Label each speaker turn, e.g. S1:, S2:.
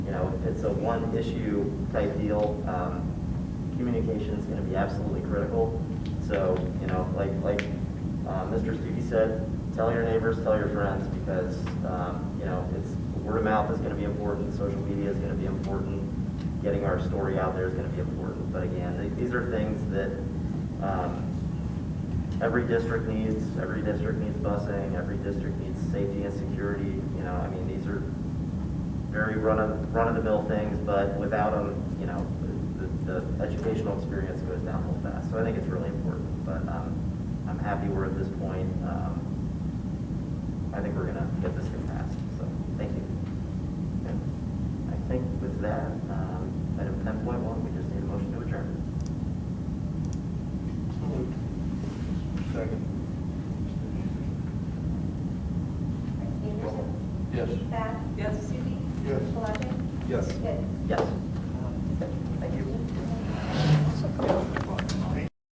S1: know, it's a one-issue type deal. Um, Communication's gonna be absolutely critical. So, you know, like, like uh, Mr. Stuckey said, tell your neighbors, tell your friends, because, um, you know, it's, word of mouth is gonna be important, social media is gonna be important, getting our story out there is gonna be important. But again, th- these are things that, um, every district needs, every district needs busing, every district needs safety and security, you know, I mean, these are very run of, run-of-the-mill things, but without them, you know, the, the educational experience goes down real fast, so I think it's really important, but, um, I'm happy we're at this point, um, I think we're gonna get this thing passed, so, thank you. I think with that, um, item ten point one, we just need a motion to adjourn.
S2: Second.
S3: Anderson?
S2: Yes.
S3: Bath?
S4: Yes.
S3: Stuckey?
S2: Yes.
S3: Palage?
S2: Yes.
S3: Pitts?
S1: Yes.